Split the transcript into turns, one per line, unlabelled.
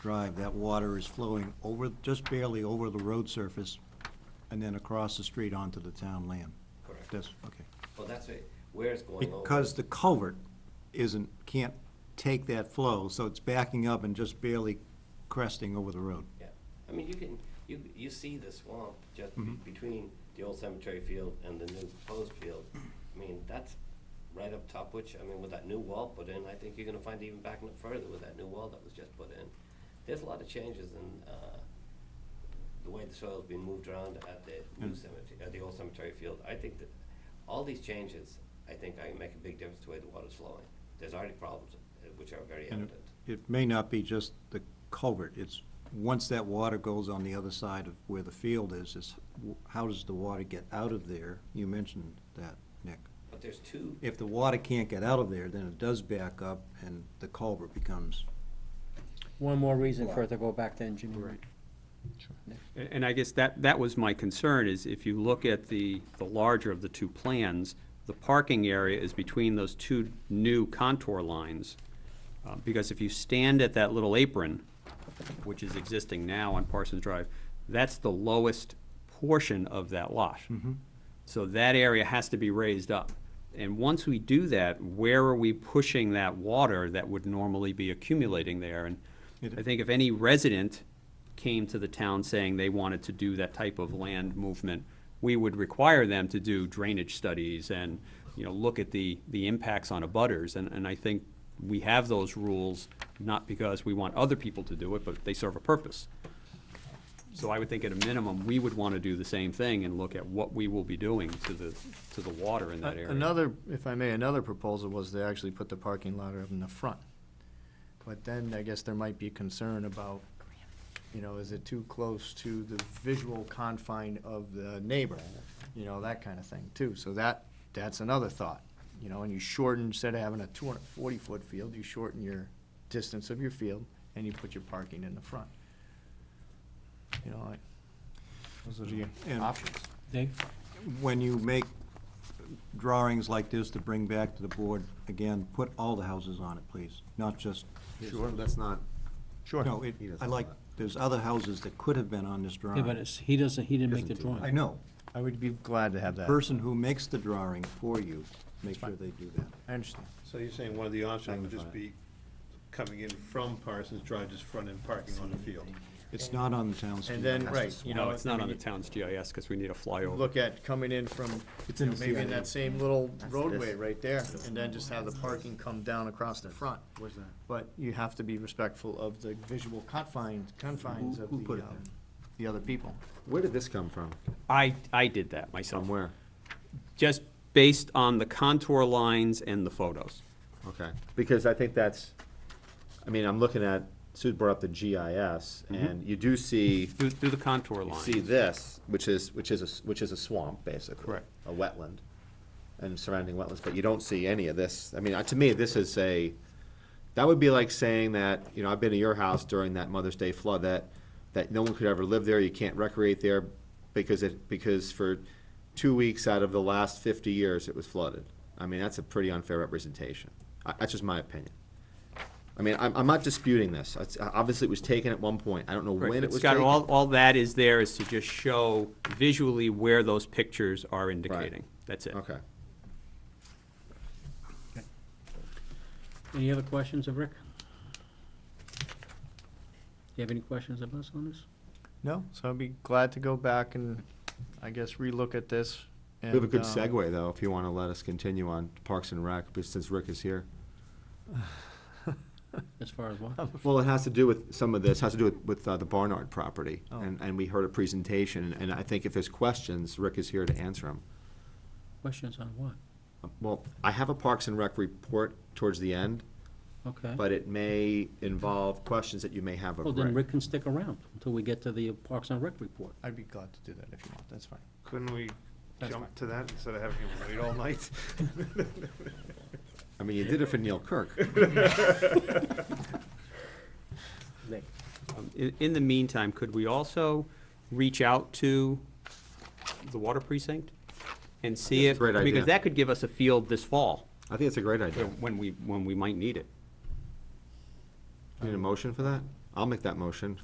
Drive, that water is flowing over, just barely over the road surface and then across the street onto the town land.
Correct.
That's, okay.
Well, that's it, where it's going over.
Because the culvert isn't, can't take that flow, so it's backing up and just barely cresting over the road.
Yeah, I mean, you can, you, you see the swamp just be-
Mm-hmm.
between the old cemetery field and the new proposed field.
Mm-hmm.
I mean, that's right up top, which, I mean, with that new wall put in, I think you're gonna find even backing up further with that new wall that was just put in. There's a lot of changes in, uh, the way the soil's been moved around at the new cemetery, at the old cemetery field. I think that all these changes, I think I make a big difference to the way the water's flowing. There's already problems, uh, which are very
And
evident.
It may not be just the culvert, it's, once that water goes on the other side of where the field is, is w- how does the water get out of there? You mentioned that, Nick.
But there's two
If the water can't get out of there, then it does back up and the culvert becomes,
One more reason for it to go back to engineering.
And and I guess that, that was my concern, is if you look at the, the larger of the two plans, the parking area is between those two new contour lines. Uh, Because if you stand at that little apron, which is existing now on Parsons Drive, that's the lowest portion of that lot. So that area has to be raised up. And once we do that, where are we pushing that water that would normally be accumulating there? And I think if any resident came to the town saying they wanted to do that type of land movement, we would require them to do drainage studies and, you know, look at the, the impacts on abutters. And, and I think we have those rules, not because we want other people to do it, but they serve a purpose. So I would think at a minimum, we would want to do the same thing and look at what we will be doing to the, to the water in that area.
Another, if I may, another proposal was to actually put the parking lot up in the front. But then I guess there might be concern about, you know, is it too close to the visual confine of the neighbor? You know, that kind of thing too. So that, that's another thought, you know, and you shorten, instead of having a two hundred and forty foot field, you shorten your distance of your field and you put your parking in the front. You know, like, those are the
And-
options.
Dave?
when you make drawings like this to bring back to the board, again, put all the houses on it, please, not just.
Sure, that's not,
Sure.
No, it,
He doesn't
I like, there's other houses that could have been on this drawing.
Yeah, but it's, he doesn't, he didn't make the
Doesn't do it.
drawing.
I know,
I would be glad to have that.
person who makes the drawing for you, make sure they do that.
I understand.
so you're saying one of the options would just
Magnify
be coming in from Parsons Drive, just front end parking on the field?
It's not on the town street.
And then, right, you know.
No, it's not
I
on the
mean,
town's GIS because we need a flyover.
Look at coming in from,
It's
you
in
know,
the
maybe in
CIA.
that same little roadway right there, and then just have the parking come down across the front.
Where's that?
But you have to be respectful of the visual confines, confines of
Who- who
the,
put it
um,
there?
the other people.
Where did this come from?
I, I did that myself. Just based on the contour lines and the photos.
Okay, because I think that's, I mean, I'm looking at, Sue brought up the GIS,
Mm-hmm.
and you do see,
Through, through the contour
you
lines.
see this, which is, which is, a s- which is a swamp, basically.
Correct.
A wetland, and surrounding wetlands, but you don't see any of this. I mean, uh, to me, this is a, that would be like saying that, you know, I've been to your house during that Mother's Day flood, that, that no one could ever live there, you can't recreate there, because it, because for two weeks out of the last fifty years, it was flooded. I mean, that's a pretty unfair representation. I, that's just my opinion. I mean, I'm, I'm not disputing this. It's- uh, Obviously, it was taken at one point. I don't know
Right,
when it
but
was
Scott,
taken.
all, all that is there is to just show visually where those pictures are indicating. That's it.
Okay.
Any other questions of Rick? Do you have any questions of us on this?
No, so I'd be glad to go back and, I guess, relook at this.
We have a good
and, um,
segue, though, if you want to let us continue on Parks and Rec, but since Rick is here.
As far as what?
Well, it has to do with, some of this has to do with, with uh, the Barnard property.
Oh.
And, and we heard a presentation, and I think if there's questions, Rick is here to answer them.
Questions on what?
Well, I have a Parks and Rec report towards the end,
Okay.
but it may involve questions that you may have
Well,
of
then
Rick.
Rick can stick around until we get to the Parks and Rec report.
I'd be glad to do that if you want, that's fine.
Couldn't we
That's fine.
jump to that instead of having him wait all night?
I mean, you did it for Neil Kirk.
Um, In, in the meantime, could we also reach out to the water precinct and see if?
That's a great idea.
Because that could give us a field this fall,
I think it's a great idea.
when we, when we might need it.
Need a motion for that? I'll I'll make that motion.